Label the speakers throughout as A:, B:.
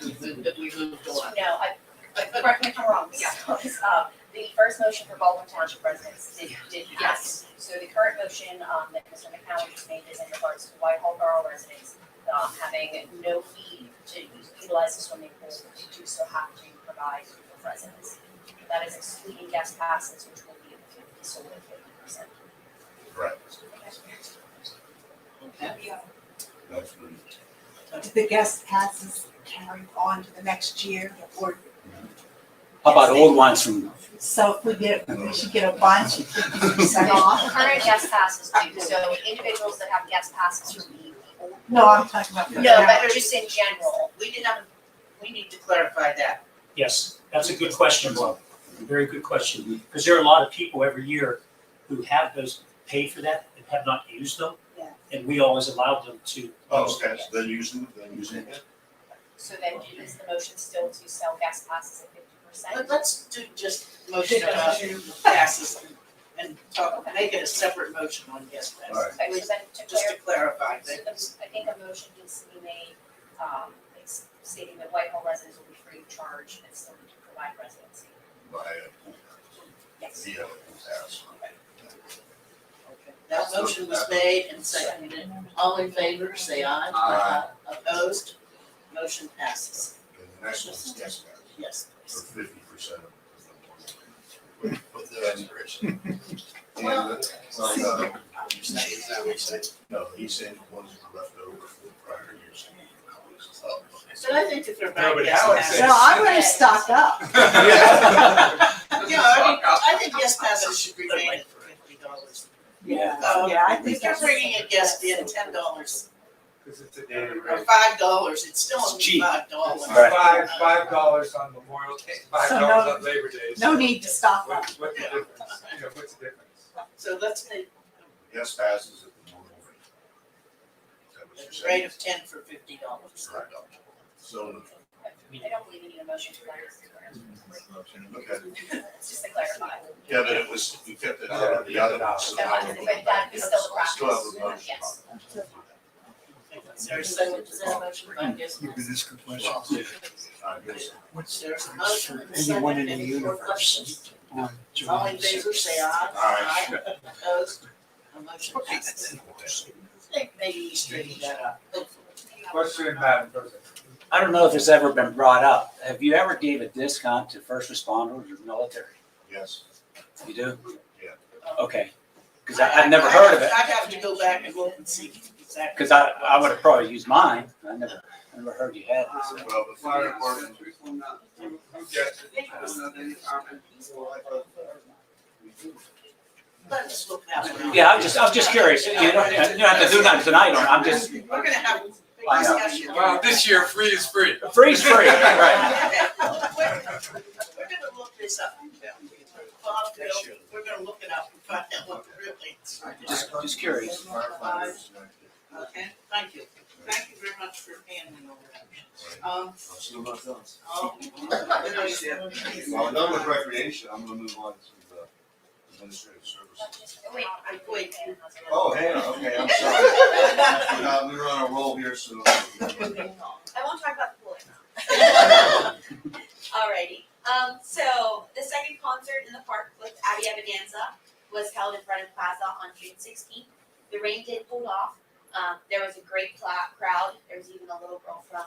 A: that we moved on.
B: No, I, correct me if I'm wrong, Mrs. Thomas, uh, the first motion for Baldwin Township residents did, did pass. So the current motion, um, that Mr. McCallum just made is in regards to Whitehall Borough residents, um, having no fee to utilize the swimming pool, to do so have to provide for residents. That is excluding guest passes, which will be sold at fifty percent.
C: Right.
A: Okay.
C: That's good.
D: Do the guest passes carry on to the next year or
E: How about old ones from,
D: so if we get, we should get a bunch of fifty percent off?
B: Current guest passes do, so individuals that have guest passes will be.
D: No, I'm talking about. for
B: No,
D: now.
B: but just in general,
A: We did not, we need to clarify that.
F: Yes, that's a good question, Bob. Very good question, because there are a lot of people every year who have those, paid for that and have not used them.
A: Yeah.
F: And we always allow them to.
C: Oh, okay, so they're using, they're using it.
B: so then is the motion still to sell guest passes at fifty
A: Let-
B: percent?
A: Let's do just motion about passes and- and talk, make it a separate motion on guest
C: All
A: passes.
C: right.
B: Okay, so then to
A: Just to
B: clarify,
A: clarify,
B: so
A: that
B: the- I think a motion needs to be made, um, it's stating that Whitehall residents will be free of charge and still need to provide residency.
C: By a pool house,
B: Yes.
C: via a pool house.
A: that motion was made and seconded. All in favor, say aye.
C: Aye.
A: Opposed? Motion passes.
C: And the next one is guest house,
A: Yes,
C: for
A: please.
C: fifty percent of the. With the expiration. And,
A: Well-
C: uh, is that what he said? No, he said ones that were left over from the prior years.
A: So I think if they're
G: No,
A: buying
G: but
A: guest
G: Alan
A: passes.
D: So I'm gonna stock up.
A: Yeah, I mean, I think guest passes should remain at fifty dollars.
D: Yeah.
A: Um,
D: Yeah, I
A: If
D: think
A: you're
D: that's.
A: bringing a guest in ten dollars
G: Because it's a daily
A: or
G: rate.
A: five dollars, it's still
E: It's
A: only
E: cheap.
A: five dollars.
G: It's Five, five dollars on Memorial Day, five
D: So
G: dollars
D: no-
G: on Labor Day.
D: No need to stock up.
G: What- What's the difference? You know, what's the difference?
A: Uh, So let's make
C: Guest passes at the normal rate. Is that what you're
A: a rate
C: saying?
A: of ten for fifty dollars.
C: Right. So,
B: I I don't believe we need a motion to that, it's
C: okay,
B: just to clarify.
C: yeah, but it was, we kept it out of the other house. so
B: That
C: now
B: was-
C: we're
B: but that is still the
C: Still have a
B: practice.
C: motion.
B: Yes.
A: There's a second to that motion by guest passes.
C: I guess.
A: There's a motion and a second, any more questions? All in favor, say aye.
C: Aye.
A: Opposed? The motion passes. I think maybe you straightened that up, hopefully.
G: Question, Madam President.
E: I don't know if it's ever been brought up. Have you ever gave a discount to first responders or military?
C: Yes,
E: You do?
C: Yeah.
E: Okay, because I've never heard of it,
A: I have to go back and look and see exactly.
E: because I, I would have probably used mine. I never, I never heard you had. it, so.
C: well, the fire department,
G: Who who gets it? I don't know any comment.
C: we do.
A: Let's look that one up.
E: Yeah, I'm just, I'm just curious. You don't, you don't have to do nothing tonight on it. I'm just,
A: We're gonna have a big
E: I know.
A: discussion.
G: Well, this year free is free.
E: freeze free, right?
A: Okay, We're we're gonna look this up. Bob, Bill, we're gonna look it up and find out what really,
E: Just, just curious.
C: Firefighters,
A: okay? Thank you. Thank you very much for handling all that. Um,
C: I'm still not done.
A: oh.
C: Well, I'm done with recreation, I'm gonna move on to the administrative services.
B: Wait,
A: I- wait.
C: Oh, Hannah, okay, I'm sorry. We're not- We're on a roll here, so.
H: I won't talk about the pool anymore. Alrighty, um, so the second concert in the park with Abby Evidanza was held in front of Plaza on June sixteenth. The rain did hold off, um, there was a great cla- crowd, there was even a little girl from,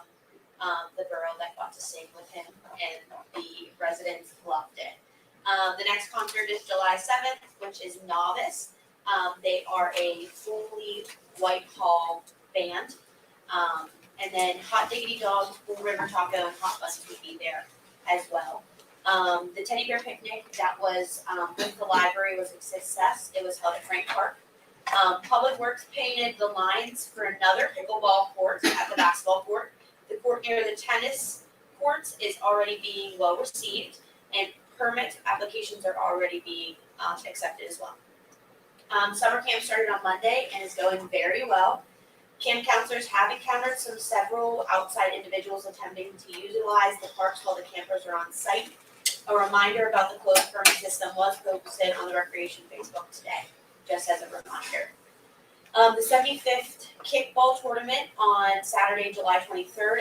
H: um, the borough that got to sing with him, and the residents loved it. Um, the next concert is July seventh, which is Novice, um, they are a fully Whitehall band. Um, and then Hot Diggity Dog, Bull River Taco, and Hot Bus would be there as well. Um, the teddy bear picnic that was um, with the library was a success. It was held at Frank Park. Um, Public Works painted the lines for another pickleball court at the basketball court. The court near the tennis courts is already being well received, and permit applications are already being um, accepted as well. Um, summer camp started on Monday and is going very well. Camp counselors have encountered some several outside individuals attempting to utilize the parks while the campers are on site. A reminder about the closed burn system was posted on the recreation Facebook today, just as a reminder. Um, the seventy-fifth kickball tournament on Saturday, July twenty-third